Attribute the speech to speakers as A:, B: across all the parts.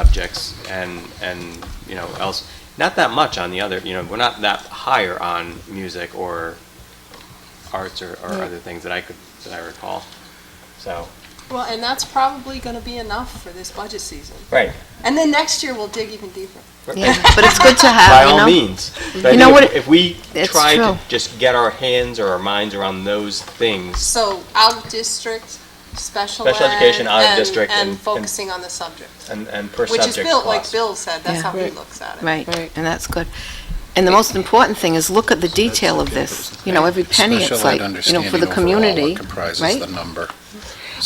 A: subjects and, and, you know, else, not that much on the other, you know, we're not that higher on music or arts or, or
B: Yeah.
A: other things that I could, that I recall, so.
B: Well, and that's probably going to be enough for this budget season.
A: Right.
B: And then next year we'll dig even deeper.
C: Yeah, but it's good to have,
A: By
C: Uh, you know?
A: all means. But I
C: You know
A: think
C: what
A: if- If we
C: it's
A: try to
C: true.
A: just get our hands or our minds around those things,
B: So out of district, special
A: Special
B: ed,
A: education, out of
B: and-
A: district, and-
B: and
A: and-
B: focusing on the subject,
A: and, and per
B: which is
A: subject
B: Bill, like
A: cost.
B: Bill said, that's
C: Yeah.
B: how he
D: Right.
B: looks at it.
C: Right, and that's good. And the most important thing is look at the detail of this. You know, every penny, it's
E: Special ed
C: like, you know, for the
E: understanding overall,
C: community,
E: what comprises
C: right?
E: the number,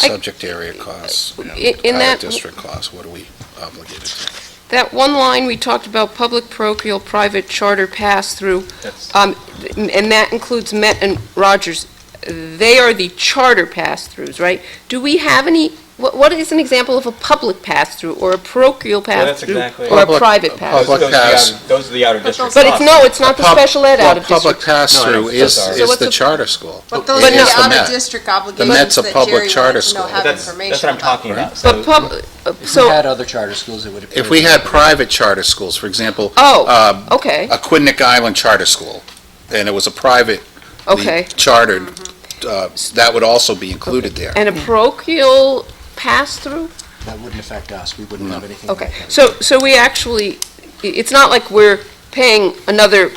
D: I-
E: subject area costs, you know,
D: I- in
E: entire
D: that-
E: district costs, what are we obligated to?
D: That one line we talked about, public parochial, private charter pass-through,
A: That's-
D: um, and that includes Met and Rogers. They are the charter pass-throughs, right? Do we have any, what, what is an example of a public pass-through or a parochial
A: Well, that's
D: pass-through?
A: exactly-
D: Or a
E: Public-
D: private
A: Those-
D: pass-through?
E: Public
A: those are the
E: pass.
A: outer- Those are the outer district
D: But it's,
A: costs.
D: no, it's not the
E: Pub-
D: special ed
E: well,
D: out of district.
E: Public pass-through
A: No,
E: is,
A: that's ours.
D: So
E: is
D: what's
E: the
D: the-
E: charter school.
B: But those
D: But
B: are
D: no-
B: the
E: It's the
B: out of
E: Met.
B: district
E: Met's
B: obligations
E: a
B: that
E: public
B: Jerry
E: charter
B: wanted to know,
E: school.
B: have
A: That's,
B: information
A: that's what I'm
B: about.
A: talking about.
D: But
A: So
D: pub, uh,
F: If you
D: so,
F: had other charter schools, it would appear.
E: If we had private charter schools, for example.
D: oh,
E: um,
D: okay,
E: A Quinnick Island charter school, and it was a private.
D: okay.
E: Chartered, uh, that would also be included there.
D: And a parochial pass-through?
F: That wouldn't affect us, we wouldn't have anything.
D: Okay,
F: like that.
D: so, so we actually, i- it's not like we're paying another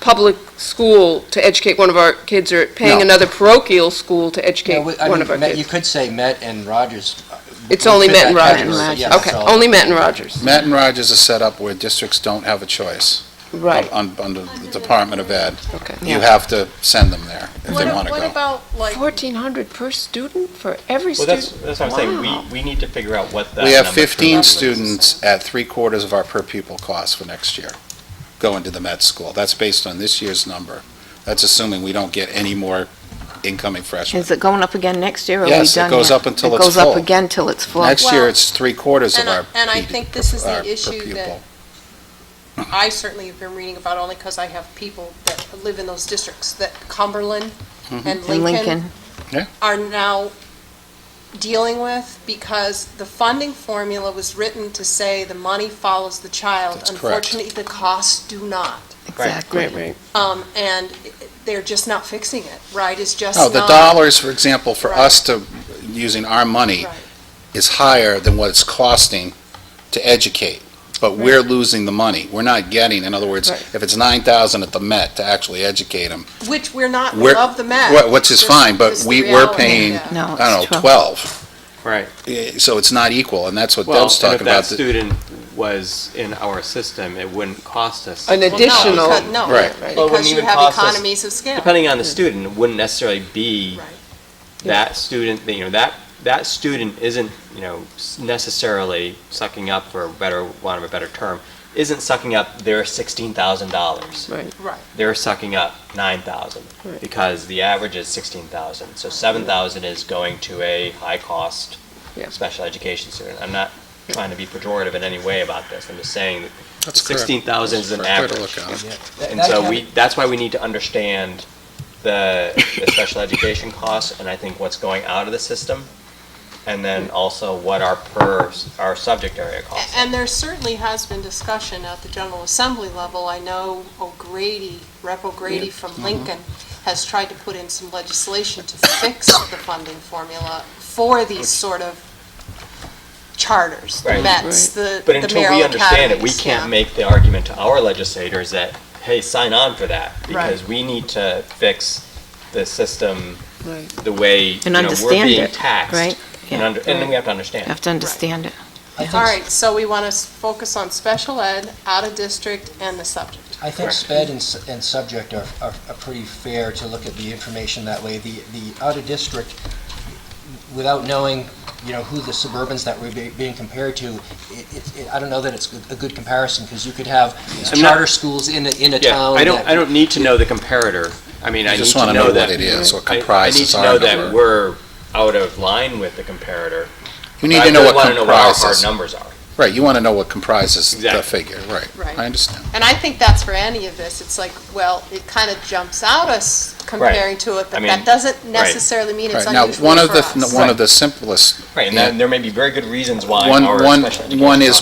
D: public school to educate one of our kids, or paying
E: No.
D: another parochial school to educate
F: Yeah, we- I
D: one of our
F: mean, Met- you
D: kids.
F: could say Met and Rogers. uh,
D: It's
F: would
D: only
F: fit
D: Met and
F: that
D: Rogers.
F: category, yeah,
D: Okay,
F: so-
D: only Met and Rogers,
E: Matt and Rogers is set up where districts don't have a choice.
D: right,
E: un- Under the Department of Ed.
D: okay.
E: You have to send them there if
B: What
E: they
B: a-
E: want to
B: What
E: go.
B: about like,
D: Fourteen hundred per student for every
A: Well, that's,
D: student?
A: that's what I'm saying,
D: Wow.
A: we, we need to figure out what that.
E: We have
A: number should be.
E: 15 students at three quarters of our per pupil cost for next year going to the med school. That's based on this year's number. That's assuming we don't get any more incoming freshmen.
C: Is it going up again next year, or are we done
E: Yes, it goes
C: yet?
E: up until
C: It
E: it's
C: goes up
E: full.
C: again till it's full.
E: Next
B: Well,
E: year, it's three quarters of
B: and I-
E: our.
B: and I
E: PD
B: think this is the
E: our per
B: issue that-
E: pupil.
B: I certainly have been reading about only because I have people that live in those districts, that Cumberland
E: Mm-hmm.
B: and
C: In
B: Lincoln
C: Lincoln,
B: are now dealing with because the funding formula was written to say the money follows the child.
E: That's correct.
B: Unfortunately, the costs do not.
C: exactly.
B: Um, and they're just not fixing it, right? It's just
E: No, the
B: not-
E: dollars, for example, for
B: Right.
E: us to, using our money,
B: Right.
E: is higher than what it's costing to educate, but we're losing the money. We're not getting, in other words,
D: Right.
E: if it's 9,000 at the Met to actually educate them,
B: Which we're not, we
E: We're-
B: love the
E: wh-
B: math.
E: which is
B: Just-
E: fine, but
B: just the
E: we, we're
B: reality,
E: paying,
B: yeah.
C: No,
E: I
C: it's
E: don't know,
C: 12.
E: 12.
A: Right.
E: Eh, So it's not equal, and that's what
A: Well,
E: Deb's
A: and if
E: talking
A: that
E: about. The-
A: student was in our system, it wouldn't cost us.
D: An
B: Well, no,
D: additional-
B: because- No,
A: Well,
E: Right.
A: it wouldn't
B: because you
A: even
B: have
A: cost us-
B: economies of scale.
A: Depending on the student, it wouldn't necessarily be
B: Right.
A: that student, you know, that, that student isn't, you know, s- necessarily sucking up, for a better, want of a better term, isn't sucking up their sixteen thousand dollars.
D: Right,
B: Right.
A: They're sucking up nine thousand,
D: Right.
A: because the average is sixteen thousand. So seven thousand is going to a high-cost
D: Yeah.
A: special education student. I'm not trying to be pejorative in any way about this. I'm just saying that
E: That's correct.
A: 16,000 is an
E: Fair to
A: average.
E: look at it.
F: Yeah. That-
A: And
F: that
A: so
F: can-
A: we, that's why we need to understand the, the special education costs and I think what's going out of the system. And then also what our per, our subject area costs.
B: And there certainly has been discussion at the General Assembly level. I know O'Grady, Rep. O'Grady
A: Mm-hmm.
B: from Lincoln, has tried to put in some legislation to fix the funding formula for these sort of charters, the
A: Right.
B: Mets, the
A: But
B: the
A: until we
B: Merrill
A: understand it, we
B: Academies. yeah.
A: can't make the argument to our legislators that, hey, sign on for that. Because we need to fix the system
D: right.
A: the way, you
C: And
A: know, we're
C: understand
A: being
C: it,
A: taxed.
C: right?
A: And
C: Yeah.
A: under, and then we have to understand.
C: You have to understand it.
F: I think-
B: All right, so we want to focus on special ed, out of district, and the subject.
F: I think
A: Correct.
F: sped and, s- and subject are, are are pretty fair to look at the information that way. The, the out of district, without knowing, you know, who the suburbans that we're be- being compared to, it, it- it, I don't know that it's good- a good comparison, because you could have these
A: I'm not-
F: charter schools in a, in a
A: Yeah,
F: town.
A: I don't,
F: that-
A: I don't need to know the comparator. I mean, I
E: You
A: need
E: just
A: to
E: wanna
A: know
E: know
A: that.
E: what it is, what
A: I-
E: comprises
A: I
E: our
A: need to know that
E: number.
A: we're out of line with the comparator.
E: You need
A: I
E: to know
A: really
E: what
A: wanna know what our hard
E: comprises.
A: numbers are.
E: Right, you want to know what comprises the
A: Exactly.
E: figure, right.
B: Right.
E: I understand.
B: And I think that's for any of this, it's like, well, it kind of jumps out us comparing to it, but
A: I mean,
B: that doesn't
A: right.
B: necessarily mean it's
E: Right, now,
B: unusual for
E: one of the,
B: us.
E: one of the simplest,
A: Right, and
E: Yeah.
A: then there may be very good reasons why
E: one,
A: our
E: one,
A: special education
E: one is